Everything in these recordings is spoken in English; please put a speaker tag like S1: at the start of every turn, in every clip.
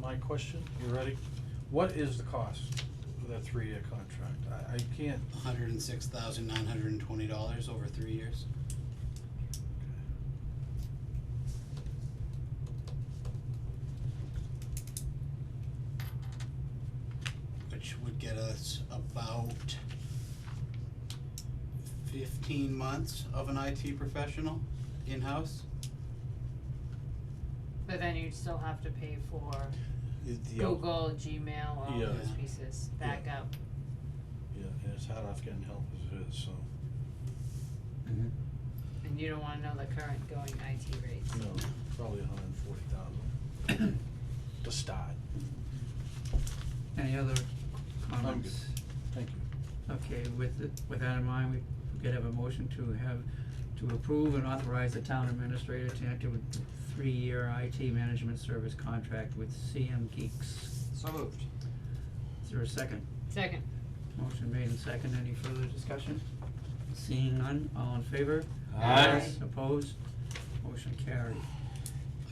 S1: my question, you ready? What is the cost of that three-year contract? I, I can't,
S2: hundred and six thousand nine hundred and twenty dollars over three years. Which would get us about fifteen months of an IT professional in-house.
S3: But then you'd still have to pay for
S1: the, the, out-
S3: Google, Gmail, all
S1: Yeah.
S3: those pieces, backup.
S1: yeah, and it's hard enough getting help as it is, so,
S3: And you don't wanna know the current going IT rates.
S1: no, probably a hundred and forty thousand to start.
S4: Any other
S1: I'm
S4: comments?
S1: Thank you.
S4: Okay, with, the- with that in mind, we could have a motion to have, to approve and authorize the town administrator to enter with a three-year IT management service contract with CM Geeks.
S5: So moved.
S4: Is there a second?
S3: Second,
S4: Motion made and second, any further discussion? Seeing none, all in favor?
S3: Aye. Aye.
S4: Opposed? Motion carried.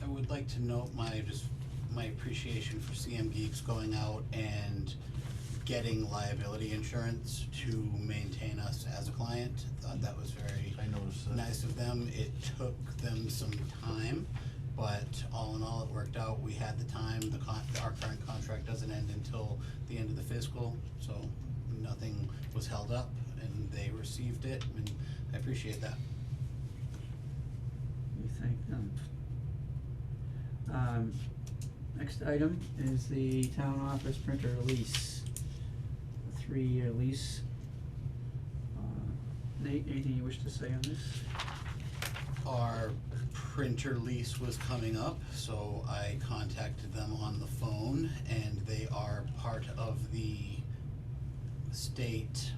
S2: I would like to note my, just my appreciation for CM Geeks going out and getting liability insurance to maintain us as a client. Thought that was very
S1: I noticed that.
S2: nice of them. It took them some time, but all in all, it worked out. We had the time, the con, our current contract doesn't end until the end of the fiscal, so nothing was held up and they received it and I appreciate that.
S4: We thank them. Um, next item is the town office printer lease, a three-year lease. Uh, Nate, anything you wish to say on this?
S2: Our printer lease was coming up, so I contacted them on the phone and they are part of the state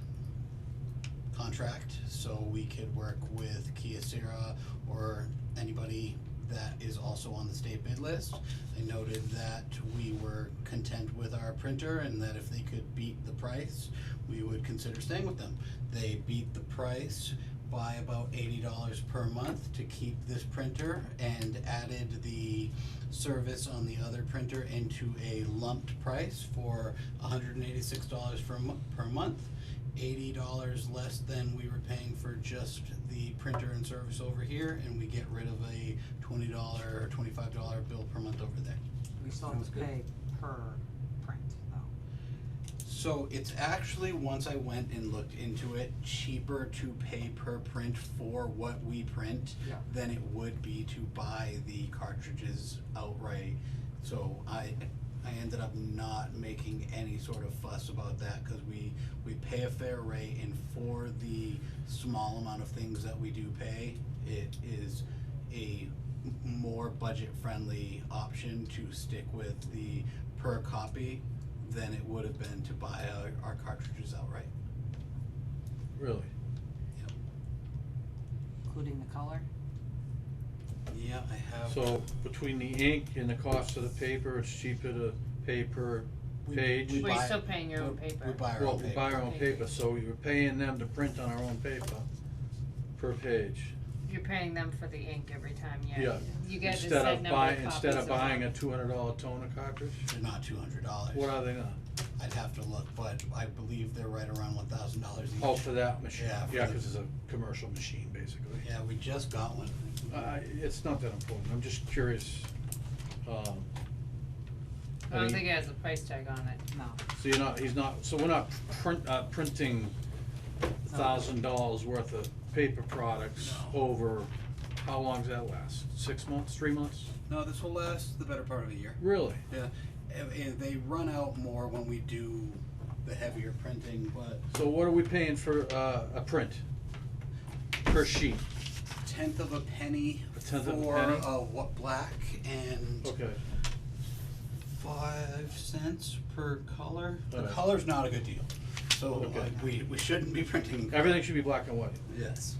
S2: contract, so we could work with Kiocera or anybody that is also on the state bid list. I noted that we were content with our printer and that if they could beat the price, we would consider staying with them. They beat the price by about eighty dollars per month to keep this printer and added the service on the other printer into a lumped price for hundred and eighty-six dollars for a mo- per month. Eighty dollars less than we were paying for just the printer and service over here, and we get rid of a twenty dollar or twenty-five dollar bill per month over there.
S5: We still have
S4: Sounds
S5: to
S4: good.
S5: pay per print though.
S2: So it's actually, once I went and looked into it, cheaper to pay per print for what we print
S5: Yeah.
S2: than it would be to buy the cartridges outright. So I, I ended up not making any sort of fuss about that, cause we, we pay a fair rate and for the small amount of things that we do pay, it is a m- more budget friendly option to stick with the per copy than it would have been to buy our, our cartridges outright.
S1: Really?
S5: Including the color?
S2: Yeah, I have.
S1: So between the ink and the cost of the paper, it's cheaper to pay per
S2: We-
S1: page?
S2: we
S3: well, you're
S2: buy-
S3: still paying your own
S2: we-
S3: paper.
S2: We buy our
S1: Well,
S2: own
S1: we buy
S2: paper.
S1: our own paper, so you're paying them to print on our own paper per page.
S3: You're paying them for the ink every time, yeah.
S1: Yeah.
S3: You get the
S1: Instead
S3: set
S1: of
S3: number of
S1: buying,
S3: copies
S1: instead of
S3: them.
S1: buying a two hundred dollar toner cartridge,
S2: They're not two hundred dollars.
S1: what are they now?
S2: I'd have to look, but I believe they're right around one thousand dollars each.
S1: Oh, for that machine,
S2: Yeah, for
S1: yeah,
S2: the-
S1: cause it's a commercial machine, basically.
S2: Yeah, we just got one.
S1: Uh, it's not that important, I'm just curious, um.
S3: I don't
S1: mean,
S3: think it has a price tag on it.
S5: No.
S1: So you're not, he's not, so we're not print, uh, printing
S3: Oh.
S1: thousand dollars worth of paper products
S2: No.
S1: over, how long's that last? Six months, three months?
S2: No, this will last the better part of a year.
S1: Really?
S2: Yeah, and, and they run out more when we do the heavier printing, but
S1: So what are we paying for, uh, a print? Per sheet?
S2: tenth of a penny
S1: A
S2: for
S1: tenth of a
S2: uh
S1: penny? Oh.
S2: what black and
S1: Okay,
S2: five cents per color. The
S1: Alright.
S2: color's not a good deal, so
S1: Okay.
S2: like, we, we shouldn't be printing.
S1: everything should be black and white.
S2: Yes.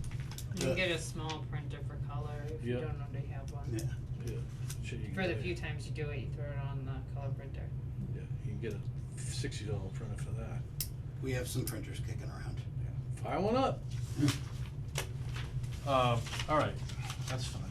S3: You can
S2: Yeah.
S3: get a small printer for color if you
S1: Yeah.
S3: don't already have one.
S2: Yeah,
S1: Yeah, shit, you can
S3: For the
S1: get a-
S3: few times you do it, you throw it on the color printer.
S1: Yeah, you can get a sixty dollar printer for that.
S2: we have some printers kicking around.
S1: Fire one up. Um, all right, that's fine.